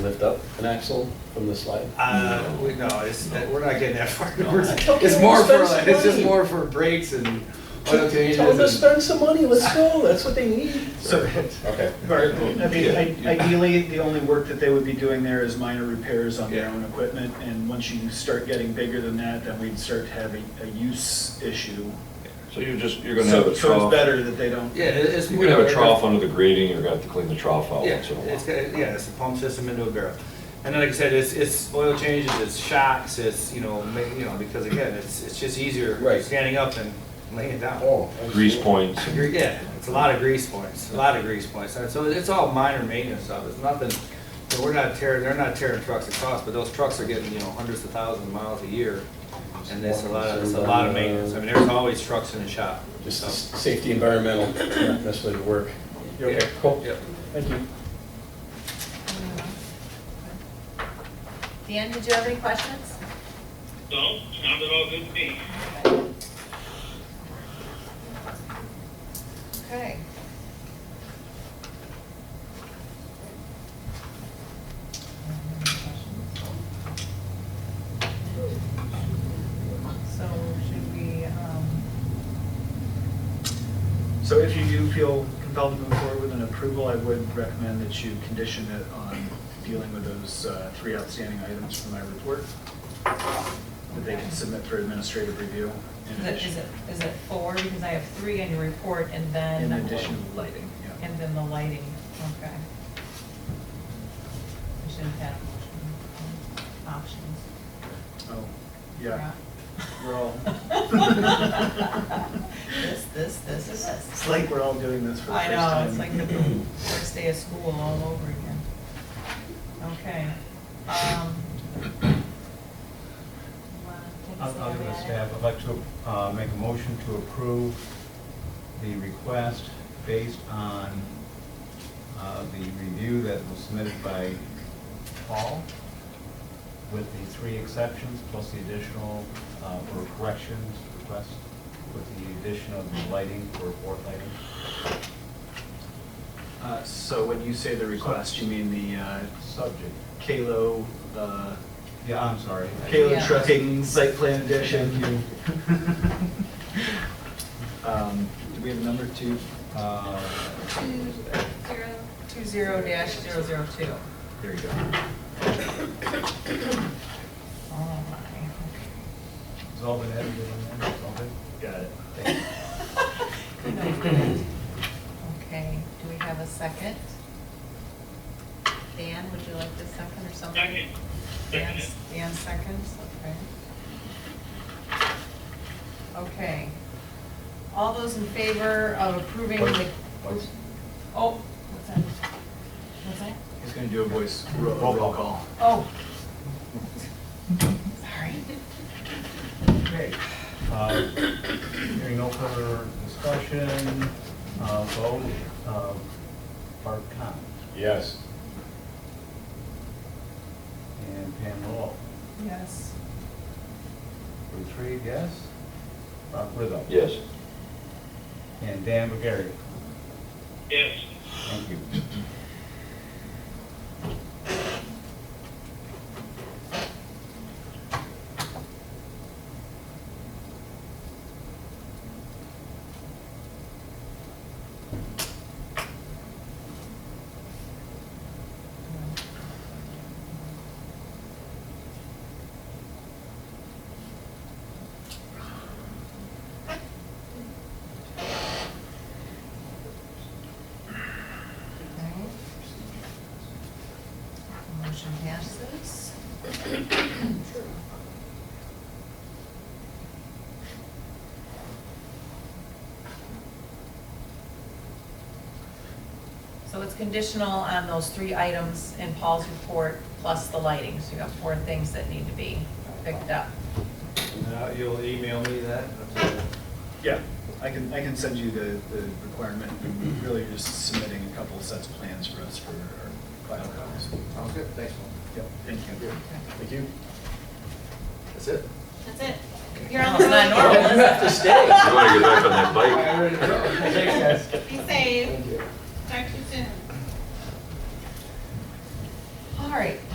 lift up an axle from the slide? Uh, we, no, it's, we're not getting that far. Okay, It's more we'll for, spend like, some it's just money. more for brakes and oil changes. Tell them to and- spend some money, let's go, that's what they need. So, Okay. Bart, I mean, Yeah. i- ideally, the only work that they would be doing there is minor repairs on their Yeah. own equipment, and once you start getting bigger than that, then we'd start to have a, a use issue. So you're just, you're gonna have a So, so it's trough, you're better that they don't. Yeah, it- it's. gonna have a trough under the grading, you're gonna have to clean the trough Oh, out Yeah, once in a it's, while. got- yeah, it's a pump system into a barrel. And then, like I said, it's, it's oil changes, it's shocks, it's, you know, ma- you know, because again, it's, it's just easier Right. standing up and laying down. Oh. Grease points, Gre- Yeah, it's a lot of grease points, a lot of grease points, and so it's all minor maintenance stuff, it's nothing, you know, we're not tearing, they're not tearing trucks across, but those trucks are getting, you know, hundreds of thousands of miles a year. And that's a lot, of it's a lot of maintenance, I mean, there's always trucks in the shop, Just so. s- safety, environmental, not necessarily the work. You okay? Yeah, Cool. Yep. Thank you. Dan, did you have any questions? No, sounded all good to me. Okay. So should we, um, So if you do feel compelled to move forward with an approval, I would recommend that you condition it on dealing with those uh, three outstanding items from my report, that they can submit for administrative review. in is it, addition- is it, is it four? Because I have three in your report and then. In addition to lighting, yeah. And then the lighting, okay. We should have had option- options. Oh, yeah. We're all, This, this, this, and this. it's like we're all doing this for the first I time. know, it's like the first day of school all over again. Okay. um, wanna take a I'll I'll give it a stab stab. at I'd like to uh, make a motion to approve the request based on uh, the review that was submitted by Paul with the three exceptions plus the additional, uh, or corrections request with the addition of the lighting for fourth lighting. Uh, So when you say the request, you mean the uh, Subject, Kalo, uh, yeah, I'm sorry. Kalo Yeah. Trucking Site Plan Edition? Um, Do we have a number two? Uh, Two zero- two zero dash zero zero two. There you go. Oh, my, It's all been edited in there, it's all good. Got it. okay. Okay, do we have a second? Dan, would you like the second or something? Second. Dan, Dan seconds, okay. Okay. All those in favor of approving the, Voice. oh, what's that? What's that? He's going to do a voice ro- roll call. Oh. Sorry. Okay, uh, hearing no further discussion, uh, vote, uh, Bart Con Yes. and Pam Lowell. Yes. For three, yes? Rob Rizzo. yes. And Dan McGarry. Yes. Thank you. Alright. Motion passes. So it's conditional on those three items in Paul's report, plus the lighting, so you got four things that need to be picked up. Now, Uh, you'll email me that? Yeah, I can, I can send you the, the requirement. Really, you're just submitting a couple of sets of plans for us for our file copies. Sounds good, thanks, Paul. Yep, thank you. Thank you. That's it. That's it. You're on It's not the normal, is it? You wanna get back on that bike? road. Be safe. Talk to you soon. All All right,